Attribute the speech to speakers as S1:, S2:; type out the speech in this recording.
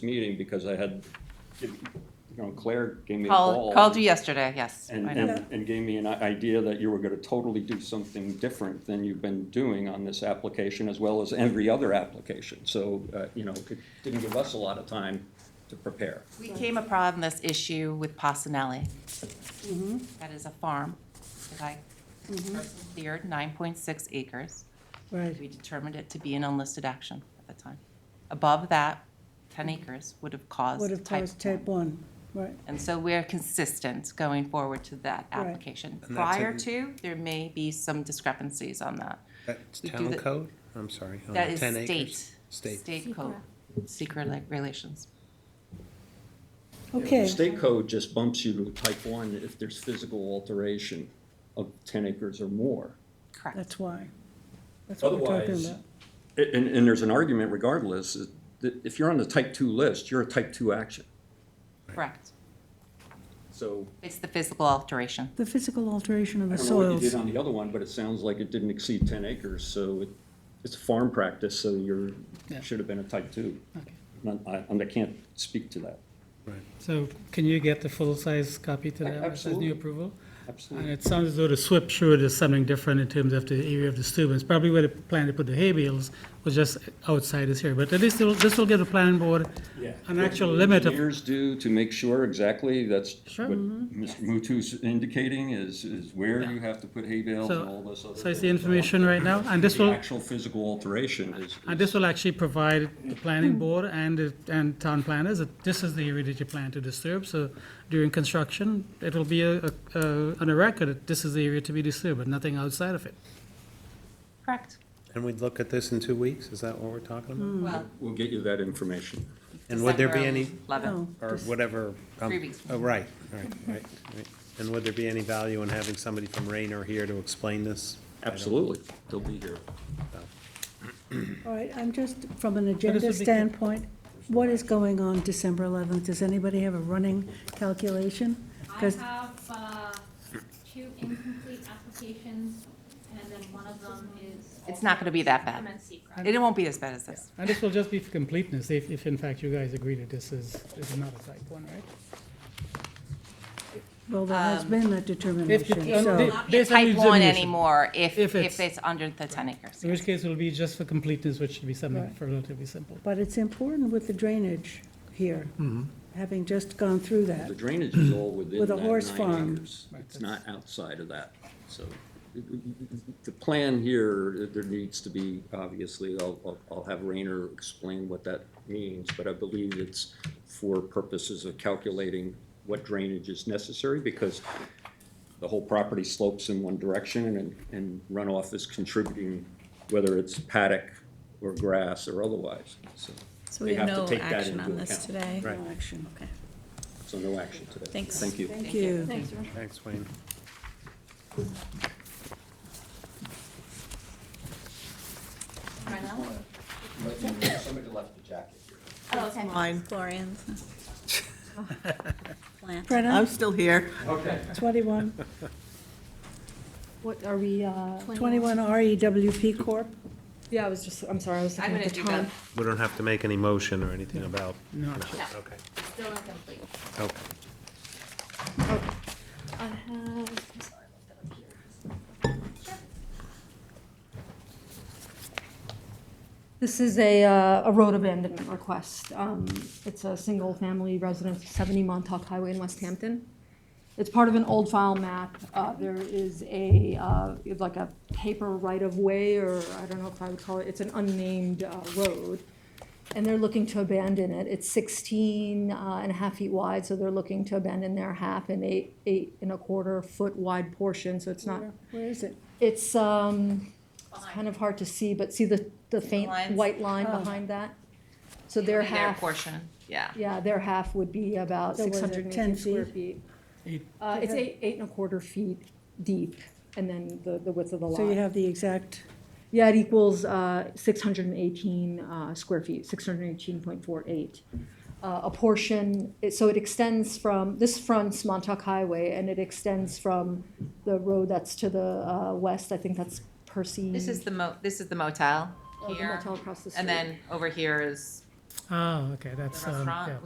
S1: meeting because I had, you know, Claire gave me a
S2: Call,
S1: call.
S2: called you yesterday, yes.
S1: And,
S2: I know.
S1: and, and gave me an i- idea that you were gonna totally do something different than you've been doing on this application as well as every other application. So, uh, you know, it didn't give us a lot of time to prepare.
S2: We came upon this issue with Pasanelli.
S3: Mm-hmm.
S2: That is a farm that I cleared, nine point six acres.
S3: Right.
S2: We determined it to be an unlisted action at the time. Above that, ten acres would have caused
S3: Would have
S2: type
S3: caused type one, right,
S2: And so we're consistent going forward to that
S3: Right.
S2: application.
S4: And that's
S2: Prior
S4: in-
S2: to, there may be some discrepancies on that.
S4: That's
S2: We do
S4: town
S2: the-
S4: code? I'm sorry. on
S2: That
S4: the
S2: is
S4: 10
S2: state,
S4: acres. State.
S2: state code, secret like relations.
S3: okay.
S1: State code just bumps you to type one if there's physical alteration of ten acres or more.
S2: Correct.
S3: That's why. That's what we're talking
S1: Otherwise-
S3: about.
S1: A- And, and there's an argument regardless, is that if you're on the type two list, you're a type two action.
S2: Correct.
S1: So
S2: It's the physical alteration.
S3: The physical alteration of
S1: I
S3: the
S1: don't know what you
S3: soils.
S1: did on the other one, but it sounds like it didn't exceed ten acres, so it, it's a farm practice, so you're, should have been a type two. And I, and I can't speak to that.
S5: So can you get the full-size copy to them as a
S1: Absolutely.
S5: new approval? And
S1: Absolutely.
S5: it sounds as though the SWIP sure is something different in terms of the area of disturbance. Probably where they plan to put the hay bales was just outside this here, but at least it'll- this will give the planning board an actual limit of,
S1: Engineers do to make sure exactly, that's
S5: Sure. Mm-hmm.
S1: what Mr. Mutu's indicating, is, is where you have to put hay bales and all
S5: so,
S1: this other.
S5: so it's the
S1: things.
S5: information right now, and this
S1: The
S5: will,
S1: actual physical alteration is.
S5: and this will actually provide the planning board and, the- and town planners that this is the area that you plan to disturb, so during construction, it'll be a, a- a- on a record that this is the area to be disturbed, but nothing outside of it.
S2: Correct.
S4: And we'd look at this in two weeks? Is that what we're talking about?
S2: Well,
S1: We'll get you that information.
S4: And would there be
S2: December
S4: any,
S2: 11th.
S3: No,
S4: or whatever? um,
S2: Three weeks.
S4: Oh, right, right, right, right. And would there be any value in having somebody from Rainer here to explain this? I don't-
S1: Absolutely, they'll be here.
S3: All right, I'm just, from an
S5: would be
S3: agenda
S5: good.
S3: standpoint, what is going on December 11th? Does anybody have a running calculation?
S6: I
S3: 'Cause-
S6: have, uh, two incomplete applications, and then one of them is.
S2: It's not gonna be that bad.
S6: MNC, correct?
S2: It won't be as bad as this.
S5: And this will just be for completeness, if, if in fact you guys agree that this is, this is not a type one, right?
S3: Well, there has
S2: Um,
S3: been that determination,
S5: um,
S3: so,
S5: the-
S2: Not be a
S5: Based on
S2: type one
S5: examination.
S2: anymore if, if
S5: If it's-
S2: it's under the ten acres.
S5: In which case it'll be just for completeness, which should be something
S3: Right.
S5: relatively simple.
S3: but it's important with the drainage here,
S1: Mm-hmm.
S3: having just gone through that.
S1: The drainage is all within
S3: With a
S1: that
S3: horse
S1: nine
S3: farm.
S1: acres. It's not outside of that, so. it- it- The plan here, there needs to be, obviously, I'll, I'll- I'll have Rayner explain what that means, but I believe it's for purposes of calculating what drainage is necessary, because the whole property slopes in one direction and, and runoff is contributing, whether it's paddock or grass or otherwise, so.
S7: So we
S1: they
S7: have
S1: to
S7: no
S1: take that
S7: action
S1: into
S7: on this
S1: account.
S7: today?
S4: Right.
S3: No action.
S7: Okay.
S1: So no action today.
S7: Thanks.
S1: Thank you.
S3: Thank you.
S4: Thanks, Wayne.
S8: Somebody left the jacket here.
S7: Mine. Glorians. Plant.
S3: Brenna,
S9: still here.
S8: Okay.
S3: 21,
S9: What, are we, uh,
S3: 21 REWP E Corp.
S9: yeah, I was just, I'm sorry, I was looking
S2: I'm
S9: at the
S2: gonna do that.
S9: time.
S4: We don't have to make any motion or anything about?
S5: No.
S4: Okay,
S6: Still incomplete.
S4: okay.
S9: I have,
S6: I'm sorry, I left that up here.
S9: This is a, uh, a road abandonment request. Um, It's a single-family residence, 70 Montauk Highway in West Hampton. It's part of an old file map. Uh, There is a, uh, it's like a paper right-of-way, or I don't know if I would call it, it's an unnamed uh, road. And they're looking to abandon it. It's 16 uh, and a half feet wide, so they're looking to abandon their half and eight, eight and a quarter foot wide portion, so it's not,
S3: Where is it?
S9: it's, um, it's kind of hard to see, but see the, the faint
S2: Lines?
S9: white line
S3: Oh.
S9: behind that? So their
S2: Their
S9: half,
S2: portion, yeah.
S9: yeah, their half would be about
S3: So was
S9: six
S3: it
S9: hundred and
S3: 10
S9: eighty square
S3: feet?
S9: feet.
S5: Eight.
S9: Uh, it's eight, eight and a quarter feet deep, and then the, the width of the lot.
S3: So you have the exact,
S9: Yeah, it equals uh, 618 uh, square feet, 618.48. Uh, A portion, it- so it extends from, this fronts Montauk Highway, and it extends from the road that's to the uh, west, I think that's Percy.
S2: This is the mo, this is the motel
S9: Oh, the
S2: here.
S9: motel across the
S2: And
S9: street.
S2: then over here is Oh, okay, that's, um,
S5: restaurant. um,
S2: yeah.